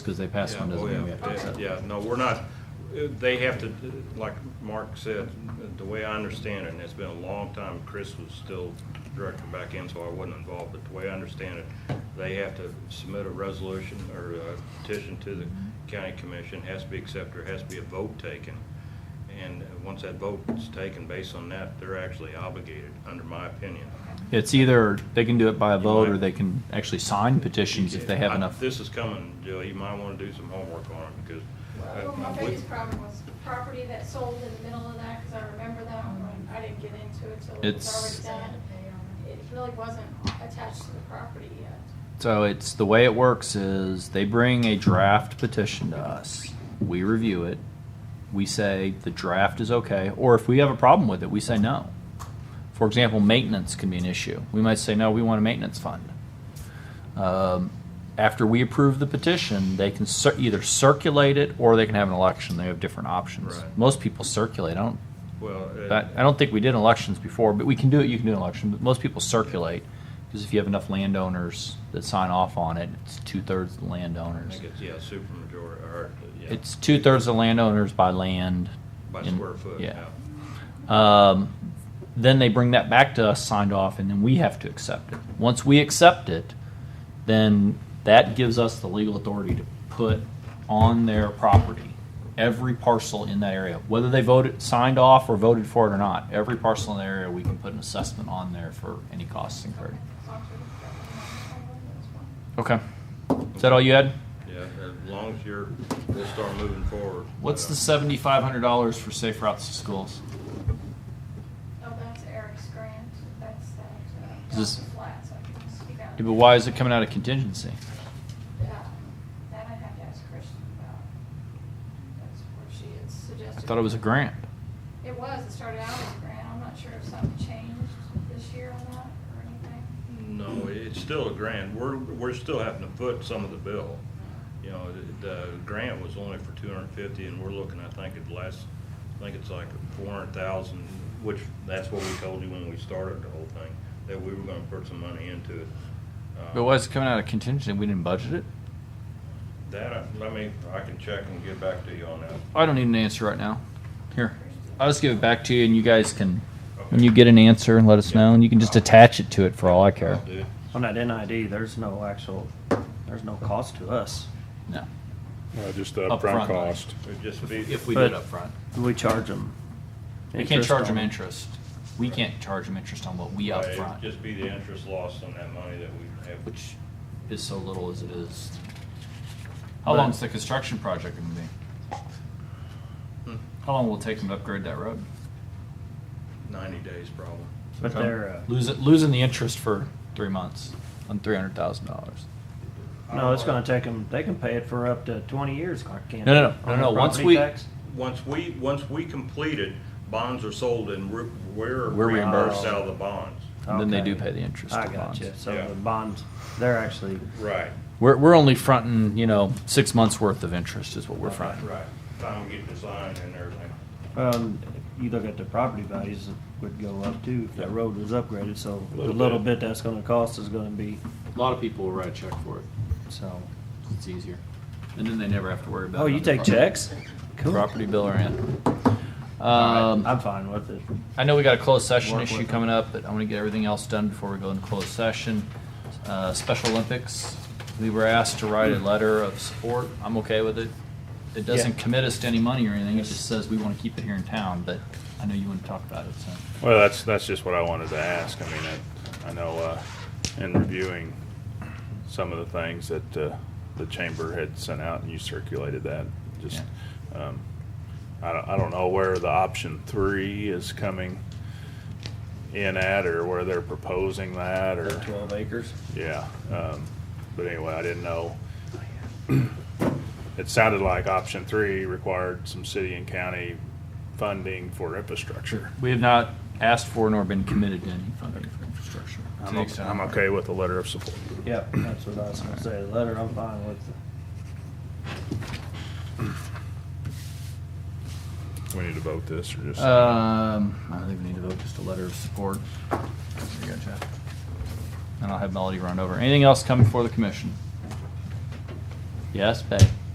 because they pass one Yeah, doesn't oh, mean yeah. we have to accept. it. Yeah, yeah, no, we're not, they have to, like Mark said, the way I understand it, and it's been a long time, Chris was still director back in, so I wasn't involved, but the way I understand it, they have to submit a resolution or a petition to the Mm-hmm. county commission, has to be accepted, has to be a vote taken. And once that vote is taken, based on that, they're actually obligated, under my opinion. It's either, they can do it by a You vote, might- or they can actually sign petitions if they have I- enough. This is coming, Jill, you might want to do some homework on it, because. uh, Well, my with- biggest problem was property that sold in the middle of that, because I remember that one, I didn't get into it till it It's- was already done. It really wasn't attached to the property yet. So it's, the way it works is, they bring a draft petition to us, we review it, we say the draft is okay, or if we have a problem with it, we say no. For example, maintenance can be an issue. We might say, no, we want a maintenance fund. Um, After we approve the petition, they can cir- either circulate it, or they can have an election, they have different options. Right. Most people circulate, I don't Well. uh, That, I don't think we did elections before, but we can do it. You can do an election. But most people circulate because if you have enough landowners that sign off on it, it's two thirds of the I landowners. think it's, yeah, supermajority, or, yeah. It's two thirds of the landowners by land. By and- square foot, yeah. Um, then they bring that back to us, signed off, and then we have to accept it. Once we accept it, then that gives us the legal authority to put on their property every parcel in that area, whether they voted, signed off, or voted for it or not. Every parcel in the area, we can put an assessment on there for any costs incurred. So I'm sure that one was one. Okay. Is that all you had? Yeah, as long as you're, we'll start moving forward. Uh, What's the seventy-five hundred dollars for safe routes to schools? Oh, that's Eric's grant, that's that, uh, Is this- Dr. Flats, I can speak out. Yeah, but why is it coming out of contingency? Uh, That I have to ask Kristen about. That's where she had I suggested. thought it was a grant. It was, it started out as a grant, I'm not sure if something changed this year on that or anything. No, it's still a grant. We're, we're still having to foot some of the bill. You know, the, the grant was only for two hundred and fifty, and we're looking, I think, at last, I think it's like four hundred thousand, which, that's what we told you when we started the whole thing, that we were gonna put some money into it. Uh, But why is it coming out of contingency? We didn't budget it? That, I- let me, I can check and get back to you on that. I don't need an answer right now. Here, I'll just give it back to you, and you guys can, when you get an answer, and let us know, and you can just attach it to it for all I care. I'll do it. On that NID, there's no actual, there's no cost to us. No, Uh, Just the Upfront. upfront cost. It'd just be. if we But- did upfront, We charge them. we can't charge them interest. We can't charge them interest on what we Right, it'd upfront, Just be the interest lost on that money that we have. which is so little as it is. How long's the construction project gonna be? How long will it take them to upgrade that road? Ninety days probably. But they're, uh, Losing, losing the interest for three months on three hundred thousand dollars. no, it's gonna take them, they can pay it for up to twenty years, can't No, no, no, they? no, On no, the once property we- tax? Once we, once we complete it, bonds are sold and we're, we're We're reimbursed reimbursed. out of the bonds. And then they do Okay. pay the interest I on got bonds. you. Yeah. So the bonds, they're actually, Right. We're, we're only fronting, you know, six months worth of interest is what we're fronting. Right. Time to get designed and everything. um, you look at the property values it would go up too if that road was upgraded, so A the little little bit. bit that's gonna cost is gonna be, A lot of people will write a check for it. so. It's easier. And then they never have to worry about Oh, it you on their take property- checks? Cool. Property bill or in. All Um, right, I'm fine with it. I know we got a closed session Work with issue it. coming up, but I want to get everything else done before we go into closed session. Uh, Special Olympics, we were asked to write a letter of support. I'm okay with it. It doesn't Hmm. Yeah. commit us to any money or anything. It just says we want to keep it here in town, but I know you want to talk about it, so. Well, that's, that's just what I wanted to ask. I mean, I, I know, uh, in reviewing some of the things that, uh, the chamber had sent out and you circulated that, just, um, I don't, I don't know where the option three is coming in at or where they're proposing that or. Twelve acres? Yeah, um, but anyway, I didn't know. It sounded like option three required some city and county funding for infrastructure. We have not asked for nor been committed to any funding for infrastructure. To I'm the okay, extent- I'm okay with the letter of support. Yep, that's what I was gonna say. The letter, I'm fine with it. We need to vote this or just? Um, I don't think we need to vote, just a letter of support. There you go, Jeff. And I'll have Melody run over. Anything else coming for the commission? Yes, babe.